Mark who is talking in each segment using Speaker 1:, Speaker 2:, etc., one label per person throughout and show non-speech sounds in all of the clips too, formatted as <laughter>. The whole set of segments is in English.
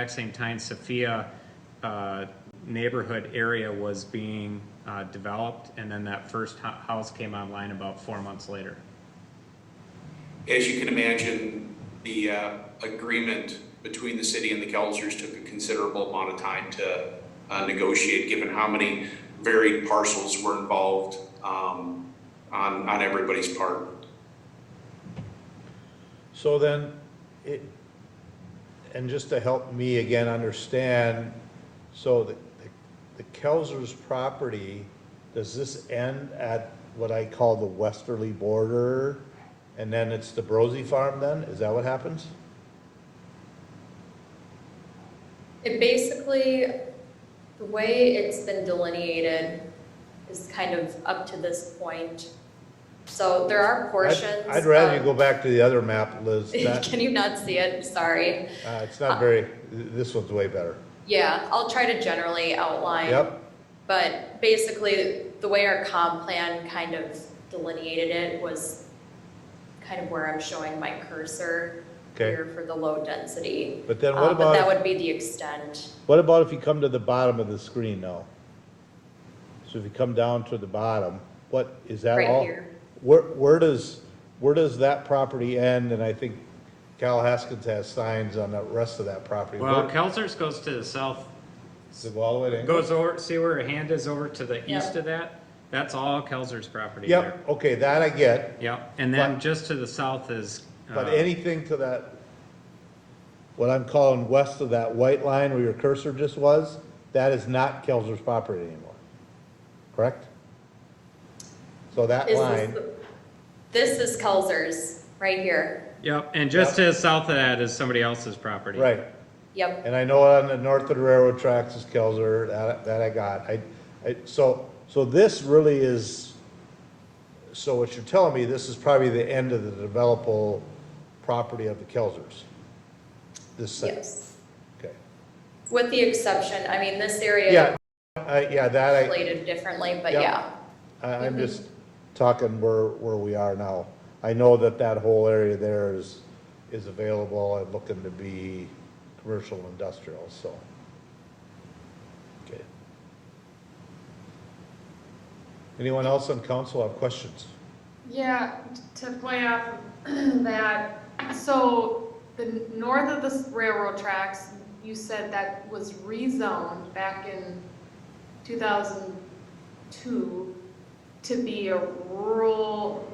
Speaker 1: exact same time Sophia uh, neighborhood area was being uh, developed, and then that first hu- house came online about four months later.
Speaker 2: As you can imagine, the uh, agreement between the city and the Kelsers took a considerable amount of time to uh, negotiate, given how many varied parcels were involved um, on, on everybody's part.
Speaker 3: So then, it, and just to help me again understand, so the, the Kelsers property, does this end at what I call the westerly border? And then it's the Brosey Farm then? Is that what happens?
Speaker 4: It basically, the way it's been delineated is kind of up to this point. So there are
Speaker 3: I'd-
Speaker 4: portions.
Speaker 3: I'd rather you
Speaker 4: of-
Speaker 3: go back to the other map, Liz. That,
Speaker 4: <laughs> Can you not see it? Sorry.
Speaker 3: uh, it's not very, th- this one's way better.
Speaker 4: Yeah, I'll try to generally outline.
Speaker 3: Yep,
Speaker 4: But basically, the way our comp plan kind of delineated it was kind of where I'm showing my cursor
Speaker 3: okay.
Speaker 4: here for the low density.
Speaker 3: But then
Speaker 4: Uh,
Speaker 3: what
Speaker 4: But that
Speaker 3: about,
Speaker 4: would be the extent.
Speaker 3: what about if you come to the bottom of the screen now? So if you come down to the bottom, what, is that
Speaker 4: Right
Speaker 3: all?
Speaker 4: here.
Speaker 3: Where, where does, where does that property end? And I think Cal Haskins has signs on the rest of that property.
Speaker 1: Well,
Speaker 3: Where-
Speaker 1: Kelsers goes to the south,
Speaker 3: Does it go all the way to?
Speaker 1: goes over, see where her hand is over to the
Speaker 4: Yeah.
Speaker 1: east of that? That's all Kelsers property there.
Speaker 3: Yep, okay, that I get,
Speaker 1: Yep, and then
Speaker 3: But-
Speaker 1: just to the south is.
Speaker 3: but
Speaker 1: uh,
Speaker 3: anything to that, what I'm calling west of that white line where your cursor just was, that is not Kelzer's property anymore, correct? So that
Speaker 4: Is this
Speaker 3: line,
Speaker 4: the- This is Kelzers, right here.
Speaker 1: Yep, and just to the south of that is somebody else's property.
Speaker 3: right,
Speaker 4: Yep,
Speaker 3: and I know on the north of the railroad tracks is Kelzer, that, that I got, I, I, so, so this really is, so what you're telling me, this is probably the end of the developable property of the Kelzers? This site,
Speaker 4: yes.
Speaker 3: okay.
Speaker 4: With the exception, I mean, this area
Speaker 3: Yeah,
Speaker 4: is
Speaker 3: I, yeah, that
Speaker 4: related differently, but
Speaker 3: Yep.
Speaker 4: yeah.
Speaker 3: I, I, I'm just talking where, where we are now. I know that that whole area there is, is available and looking to be commercial and industrial, so. Okay. Anyone else on council have questions?
Speaker 5: Yeah, to play off of <clears throat> that, so the north of the railroad tracks, you said that was rezoned back in two thousand two to be a rural,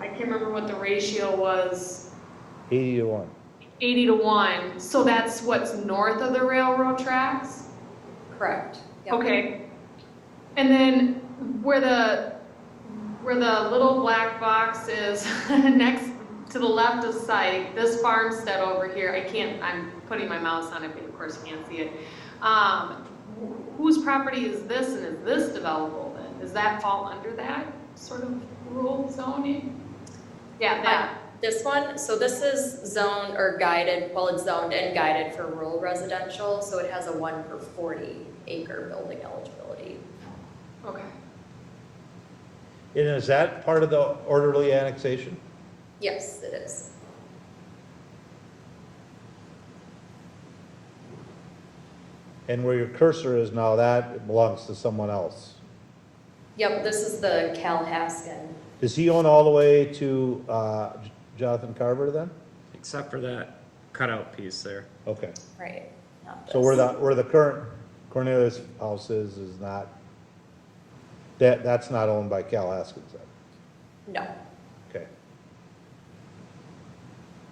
Speaker 5: I can't remember what the ratio was,
Speaker 3: Eighty to one.
Speaker 5: eighty to one, so that's what's north of the railroad tracks?
Speaker 4: Correct. Yep.
Speaker 5: Okay. And then where the, where the little black box is <laughs> next to the left of site, this farmstead over here, I can't, I'm putting my mouse on it, but of course you can't see it. Um, wh- whose property is this and is this developable then? Does that fall under that sort of rural zoning? Yeah,
Speaker 4: Uh,
Speaker 5: that,
Speaker 4: This one, so this is zoned or guided, well, it's zoned and guided for rural residential, so it has a one per forty acre building eligibility.
Speaker 5: okay.
Speaker 3: And is that part of the orderly annexation?
Speaker 4: Yes, it is.
Speaker 3: And where your cursor is now, that belongs to someone else.
Speaker 4: Yep, this is the Cal Haskin.
Speaker 3: Does he own all the way to, uh, Jonathan Carver then?
Speaker 1: Except for that cutout piece there.
Speaker 3: Okay.
Speaker 4: right? not
Speaker 3: So where
Speaker 4: this.
Speaker 3: the, where the current Cornelius house is, is not, that, that's not owned by Cal Haskins then,
Speaker 4: No,
Speaker 3: okay?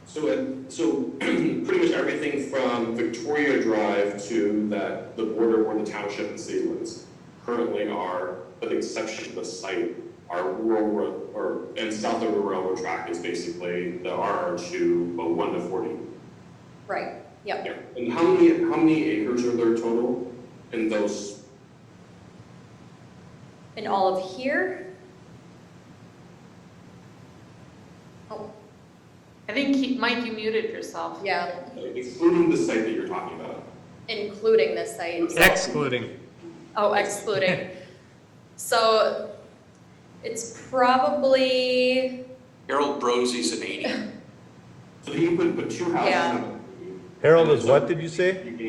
Speaker 6: So, uh, so <clears throat> pretty much everything from Victoria Drive to that, the border where the township and city limits currently are, with the exception of the site, are rural, ro- or, and south of the railroad track is basically the RR two, but one to forty.
Speaker 4: right, yep.
Speaker 6: Yeah, and how many, how many acres are there total in those?
Speaker 4: And all of here? Oh,
Speaker 5: I think, he- Mike, you muted yourself.
Speaker 4: yeah,
Speaker 6: Excluding the site that you're talking about.
Speaker 4: including the site.
Speaker 1: Excluding.
Speaker 4: Oh, excluding. So it's probably,
Speaker 2: Harold Brozzi's an 80.
Speaker 6: So you could put two houses
Speaker 4: Yeah.
Speaker 6: on.
Speaker 3: Harold is what, did you say?
Speaker 6: You can